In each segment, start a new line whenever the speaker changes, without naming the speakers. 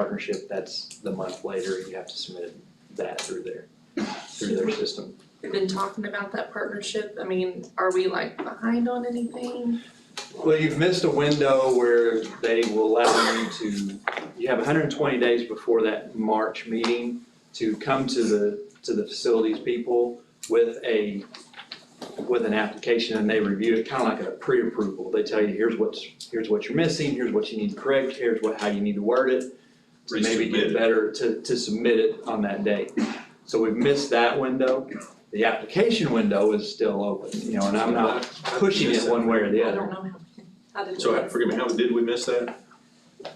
partnership, that's the month later, you have to submit that through their, through their system.
We've been talking about that partnership, I mean, are we like behind on anything?
Well, you've missed a window where they will allow you to, you have hundred and twenty days before that March meeting to come to the, to the facilities people with a, with an application and they review it, kind of like a pre-approval. They tell you, here's what's, here's what you're missing, here's what you need to correct, here's what, how you need to word it. To maybe
Resubmit
get
it.
better, to, to submit it on that day. So we've missed that window. The application window is still open, you know, and I'm not pushing it one way or the
I
other.
don't know how, how did we?
So uh, forgive me, how did we miss that?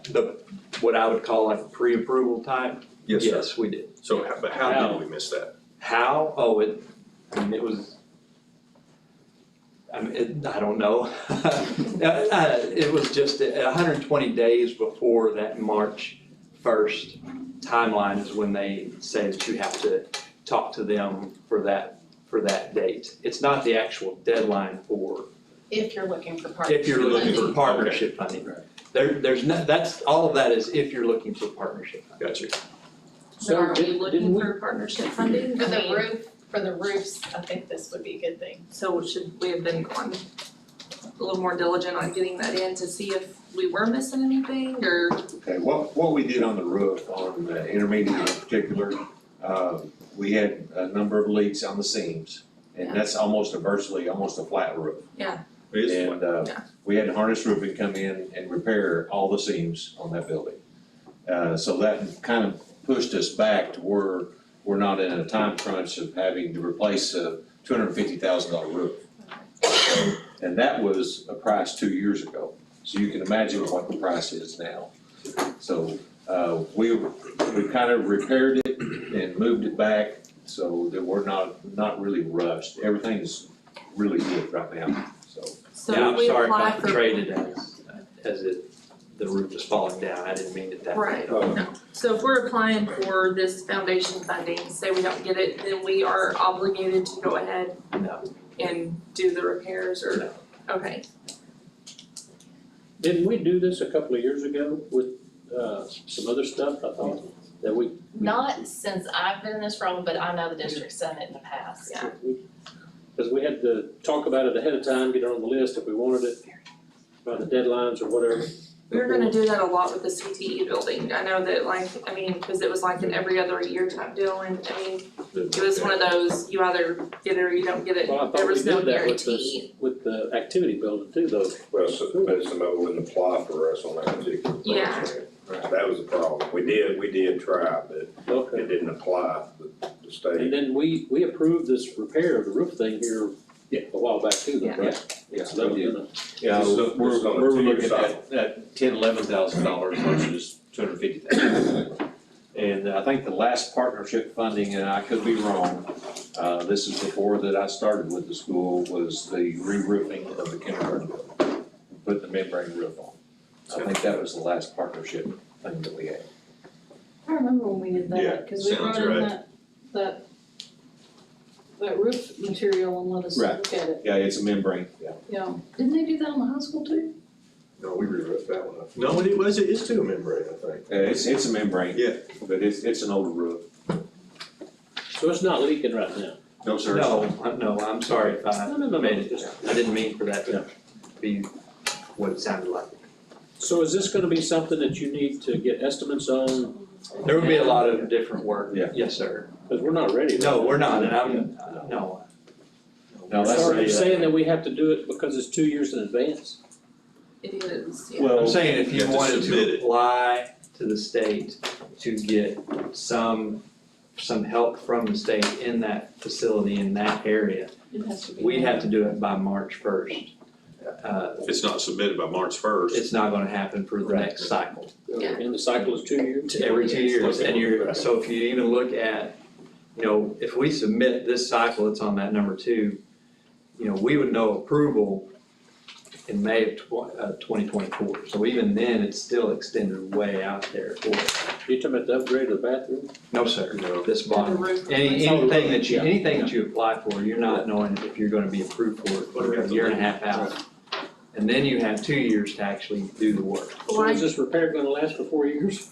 The, what I would call like pre-approval type, yes, we did.
So, how- but how did we miss that?
How, oh, it, I mean, it was, I mean, it, I don't know. Uh, uh, It was just a hundred and twenty days before that March first timeline is when they say that you have to talk to them for that, for that date. It's not the actual deadline for
If you're looking for partners.
If you're looking for partnership funding.
Right.
There, there's no, that's, all of that is if you're looking for partnership.
Got you.
So are we
didn't- didn't
looking
we-
for partnership funding?
For
I
the
mean,
roof, for the roofs, I think this would be a good thing.
So should we have been on, a little more diligent on getting that in to see if we were missing anything or?
Okay, what, what we did on the roof, on the intermediate in particular, uh, we had a number of leaks on the seams.
Yeah.
And that's almost a virtually, almost a flat roof.
It is
And, uh,
Yeah.
we had harness roofing come in and repair all the seams on that building. Uh, so that kind of pushed us back to where we're not in a time crunch of having to replace a two hundred and fifty thousand dollar roof. So, And that was a price two years ago, so you can imagine what the price is now. So, uh, we, we kind of repaired it and moved it back, so that we're not, not really rushed. Everything's really good right now, so.
So
Yeah,
if we
I'm sorry,
apply
if
for.
I'm traded as, as it, the roof is falling down, I didn't mean it that way.
Right. So if we're applying for this foundation funding, say we don't get it, then we are obligated to go ahead
No,
and do the repairs or, okay.
Didn't we do this a couple of years ago with, uh, some other stuff, I thought, that we,
Not since I've been in this role, but I know the district's done it in the past.
Yeah.
because we had to talk about it ahead of time, get it on the list if we wanted it, by the deadlines or whatever.
We were gonna do that a lot with the CTE building. I know that like, I mean, cause it was like an every other year type deal and I mean, it was one of those, you either get it or you don't get it.
Well, I
There
thought we
was no
did that with
guarantee.
the, with the activity building too, though.
Well, so- but somebody wouldn't apply for us on that particular
Yeah.
program. That was the problem. We did, we did try, but it
Okay.
didn't apply to the
And
state.
then we, we approved this repair of the roof thing here a while back too, though, right?
Yeah.
So that was in a-
Yeah,
This is-
we're,
this is on a
we're
two-year
looking
cycle.
at, at ten, eleven thousand dollars versus two hundred fifty thousand. And I think the last partnership funding, and I could be wrong, uh, this is before that I started with the school, was the re-roofing of the kindergarten building. Put the membrane roof on. I think that was the last partnership thing that we had.
I remember when we did
Yeah,
that, cause we
sounds
brought in
right.
that, that, that roof material and let us
Right.
look at it,
Yeah, it's a membrane, yeah.
yeah. Didn't they do that on the high school too?
No, we rewrote that one up.
No, it was, it is two membrane, I think.
Uh, It's, it's a membrane.
Yeah.
But it's, it's an older roof.
So it's not leaking right now.
No, sir.
no, I'm- no, I'm sorry if I
No, no, no, no,
made it,
just-
I didn't mean for that to be what it sounded like.
So is this gonna be something that you need to get estimates on?
There would be a lot of different work,
Yeah.
yes, sir.
Because we're not ready.
No, we're not, and I'm, no.
No, that's.
Sorry, you're saying that we have to do it because it's two years in advance?
It is, yeah.
Well,
I'm saying if
You
you
have to
wanted
submit
to
it.
apply to the state to get some, some help from the state in that facility, in that area,
It has to be.
we'd have to do it by March first. Uh,
If it's not submitted by March first,
it's not gonna happen for the next cycle,
Yeah.
And the cycle is two years?
to every two years, and you're,
Right.
so if you even look at, you know, if we submit this cycle, it's on that number two, you know, we would know approval in May of tw- uh, twenty twenty-four, so even then, it's still extended way out there for
You're talking about the upgrade of the bathroom?
No, sir,
No.
this
The
bond,
roof.
any, anything that you,
Yeah.
anything that you apply for, you're not knowing if you're gonna be approved for it,
What do we
for
have
a
to
year and a half out. And then you have two years to actually do the work.
So is this repair gonna last for four years?